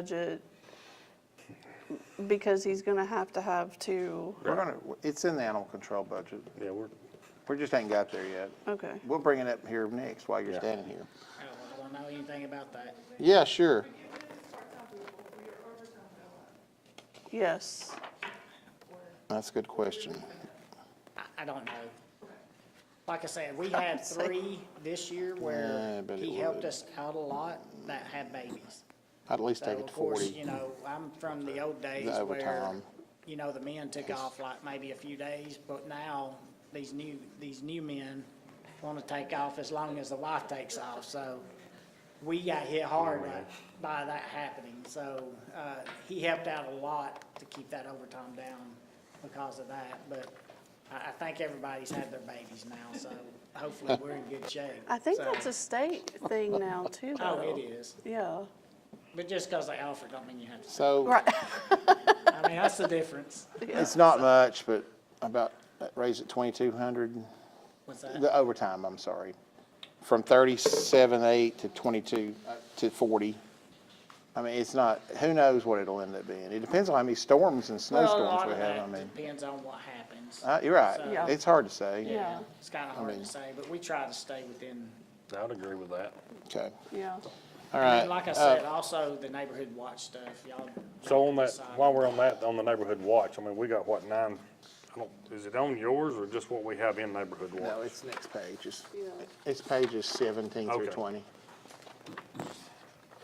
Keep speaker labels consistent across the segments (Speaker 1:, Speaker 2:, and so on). Speaker 1: budget because he's going to have to have two,
Speaker 2: We're gonna, it's in the animal control budget.
Speaker 3: Yeah, we're,
Speaker 2: We just ain't got there yet.
Speaker 1: okay.
Speaker 2: We'll bring it up here next while you're
Speaker 3: Yeah.
Speaker 2: standing here.
Speaker 4: I don't- I don't know anything about that.
Speaker 2: Yeah, sure.
Speaker 1: Yes,
Speaker 2: That's a good question.
Speaker 4: I, I don't know. Like I said, we had
Speaker 1: say-
Speaker 4: three this year
Speaker 2: Yeah, I
Speaker 4: where
Speaker 2: bet
Speaker 4: he
Speaker 2: it
Speaker 4: helped
Speaker 2: would.
Speaker 4: us out a lot that had babies.
Speaker 2: I'd at least
Speaker 4: So
Speaker 2: take it
Speaker 4: of
Speaker 2: to
Speaker 4: course,
Speaker 2: forty.
Speaker 4: you know, I'm from the old days
Speaker 2: The
Speaker 4: where,
Speaker 2: overtime.
Speaker 4: you know, the men took off like maybe a few days, but now these new, these new men want to take off as long as the wife takes off, so we got hit hard by that happening, so, uh, he helped out a lot to keep that overtime down because of that, but I, I think everybody's had their babies now, so hopefully we're in good shape.
Speaker 1: I think
Speaker 4: So-
Speaker 1: that's a state thing now too,
Speaker 4: Oh,
Speaker 1: though.
Speaker 4: it is,
Speaker 1: Yeah,
Speaker 4: but just because they offer don't mean you have to,
Speaker 2: So,
Speaker 1: right,
Speaker 4: I mean, that's the difference.
Speaker 2: it's not much, but about, uh, raise it twenty-two hundred,
Speaker 4: What's that?
Speaker 2: the overtime, I'm sorry. From thirty-seven, eight to twenty-two, uh, to forty. I mean, it's not, who knows what it'll end up being. It depends on how many storms and
Speaker 4: Well, a
Speaker 2: snowstorms
Speaker 4: lot
Speaker 2: we
Speaker 4: of
Speaker 2: have, I
Speaker 4: that
Speaker 2: mean.
Speaker 4: depends on what happens.
Speaker 2: Uh, you're
Speaker 1: Yeah.
Speaker 2: right. It's hard to say.
Speaker 1: yeah,
Speaker 4: It's kind of hard to say, but we try to stay within,
Speaker 3: I would agree with that.
Speaker 2: Okay,
Speaker 1: yeah.
Speaker 2: all right.
Speaker 4: and like I
Speaker 2: Uh,
Speaker 4: said, also the neighborhood watch stuff, y'all.
Speaker 3: So on that,
Speaker 4: decide.
Speaker 3: while we're on that, on the neighborhood watch, I mean, we got what, nine, I don't, is it on yours or just what we have in neighborhood
Speaker 2: No,
Speaker 3: watch?
Speaker 2: it's next page, it's,
Speaker 1: Yeah.
Speaker 2: it's pages seventeen through
Speaker 3: Okay.
Speaker 2: twenty.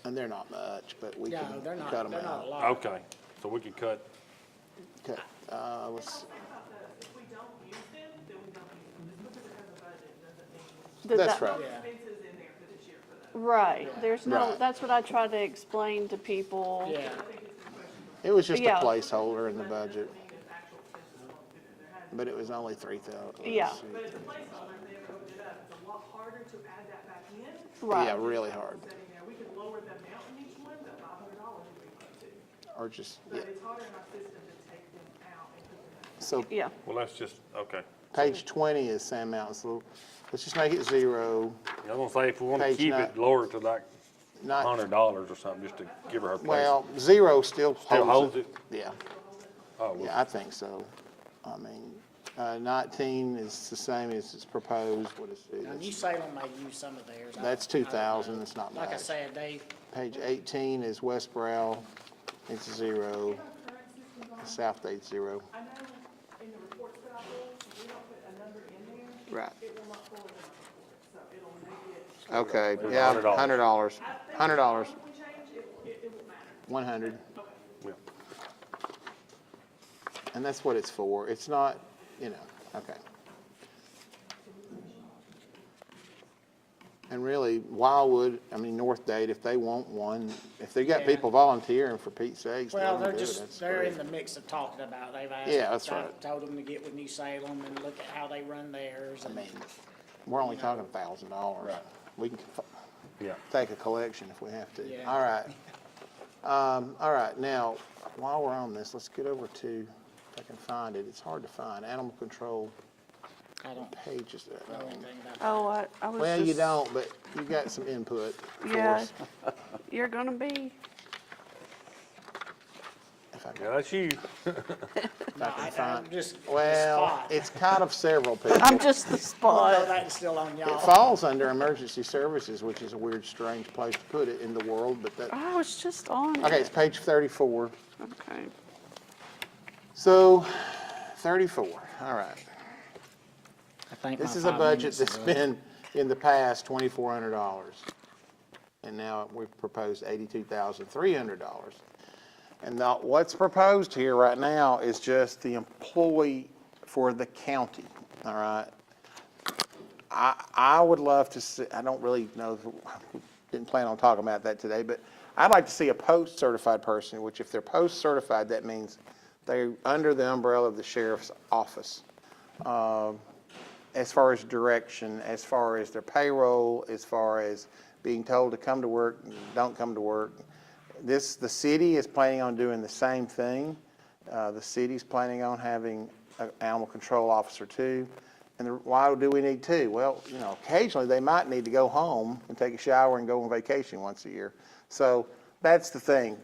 Speaker 2: And they're not much, but we can
Speaker 4: No, they're not,
Speaker 2: cut them
Speaker 4: they're not a
Speaker 2: out.
Speaker 4: lot.
Speaker 3: Okay, so we could cut,
Speaker 2: Okay, uh, let's,
Speaker 5: If we don't use them, then we don't use them. Just because it's in the budget doesn't mean
Speaker 1: Did
Speaker 2: that's
Speaker 1: that-
Speaker 2: right.
Speaker 5: expenses in there for this year for those.
Speaker 1: Right, there's no,
Speaker 2: Right.
Speaker 1: that's what I try to explain to people.
Speaker 4: Yeah,
Speaker 2: It was just a
Speaker 1: Yeah.
Speaker 2: placeholder in the budget,
Speaker 5: I mean, it's actual expenses won't fit in there. Had-
Speaker 2: but it was only three thousand.
Speaker 1: Yeah.
Speaker 5: But it's a placeholder, they moved it up. It's a lot harder to add that back in.
Speaker 2: Yeah,
Speaker 1: Right,
Speaker 2: really hard,
Speaker 5: Sitting there, we could lower them out in each one, but five hundred dollars would be fun too.
Speaker 2: or just, yeah,
Speaker 5: But it's harder in our system to take them out and put them back.
Speaker 2: so
Speaker 1: yeah,
Speaker 3: well, that's just, okay.
Speaker 2: page twenty is Sand Mountain, so let's just make it zero.
Speaker 3: I was gonna say, if we wanna
Speaker 2: Page
Speaker 3: keep
Speaker 2: nine.
Speaker 3: it lower to like
Speaker 2: Not-
Speaker 3: hundred dollars or something, just to give her her place.
Speaker 2: Well, zero still holds it.
Speaker 3: Still holds it?
Speaker 2: Yeah,
Speaker 3: Oh, well,
Speaker 2: yeah, I think so. I mean, uh, nineteen is the same as it's proposed, what is it?
Speaker 4: now
Speaker 2: It's-
Speaker 4: New Salem may use some of theirs. I-
Speaker 2: That's
Speaker 4: I don't
Speaker 2: two
Speaker 4: know.
Speaker 2: thousand, it's not much.
Speaker 4: Like I said, they,
Speaker 2: Page eighteen is West Brow, it's zero. South Date's zero.
Speaker 5: I know in the reports that I do, if we don't put a number in there,
Speaker 2: Right.
Speaker 5: it will not forward in our report. So it'll make it,
Speaker 2: Okay, yeah,
Speaker 3: $100.
Speaker 2: hundred dollars, hundred dollars,
Speaker 5: if we change, it, it, it will matter.
Speaker 2: one hundred,
Speaker 3: yeah.
Speaker 2: and that's what it's for. It's not, you know, okay. And really, Wildwood, I mean, North Date, if they want one, if they got
Speaker 4: Yeah.
Speaker 2: people volunteering for Pete's sakes, let
Speaker 4: well,
Speaker 2: 'em
Speaker 4: they're
Speaker 2: do it.
Speaker 4: just,
Speaker 2: That's
Speaker 4: they're
Speaker 2: great.
Speaker 4: in the mix of talking about, they've asked.
Speaker 2: Yeah, that's
Speaker 4: I
Speaker 2: right.
Speaker 4: Told them to get with New Salem and look at how they run theirs and.
Speaker 2: We're only talking a thousand dollars. We can f-
Speaker 3: Yeah,
Speaker 2: take a collection if we have to.
Speaker 4: Yeah.
Speaker 2: All right. Um, all right, now, while we're on this, let's get over to, if I can find it, it's hard to find, animal control
Speaker 4: I don't
Speaker 2: pages. that I
Speaker 4: know
Speaker 2: don't-
Speaker 4: anything about
Speaker 1: oh, I, I was just.
Speaker 2: Well, you don't, but you got some input for
Speaker 1: Yeah,
Speaker 2: us,
Speaker 1: you're gonna be,
Speaker 2: if I can-
Speaker 3: yeah, that's you.
Speaker 4: No, I, I'm just. the
Speaker 2: um, Well,
Speaker 4: spot.
Speaker 2: it's kind of several people.
Speaker 1: I'm just the
Speaker 4: Although
Speaker 1: spot.
Speaker 4: that's still on
Speaker 2: It
Speaker 4: y'all.
Speaker 2: falls under emergency services, which is a weird, strange place to put it in the world, but that,
Speaker 1: I was just on it.
Speaker 2: okay, it's page thirty-four.
Speaker 1: Okay.
Speaker 2: So, thirty-four, all right.
Speaker 4: I think
Speaker 2: This
Speaker 4: my
Speaker 2: is a
Speaker 4: five
Speaker 2: budget
Speaker 4: minutes uh,
Speaker 2: that's
Speaker 4: is up.
Speaker 2: been, in the past, twenty-four hundred dollars. And now we've proposed eighty-two thousand three hundred dollars. And now, what's proposed here right now is just the employee for the county, all right? I, I would love to see, I don't really know, didn't plan on talking about that today, but I'd like to see a post-certified person, which if they're post-certified, that means they're under the umbrella of the sheriff's office as far as direction, as far as their payroll, as far as being told to come to work, don't come to work. This, the city is planning on doing the same thing. Uh, the city's planning on having an animal control officer too. And the- why do we need two? Well, you know, occasionally they might need to go home and take a shower and go on vacation once a year. So that's the thing.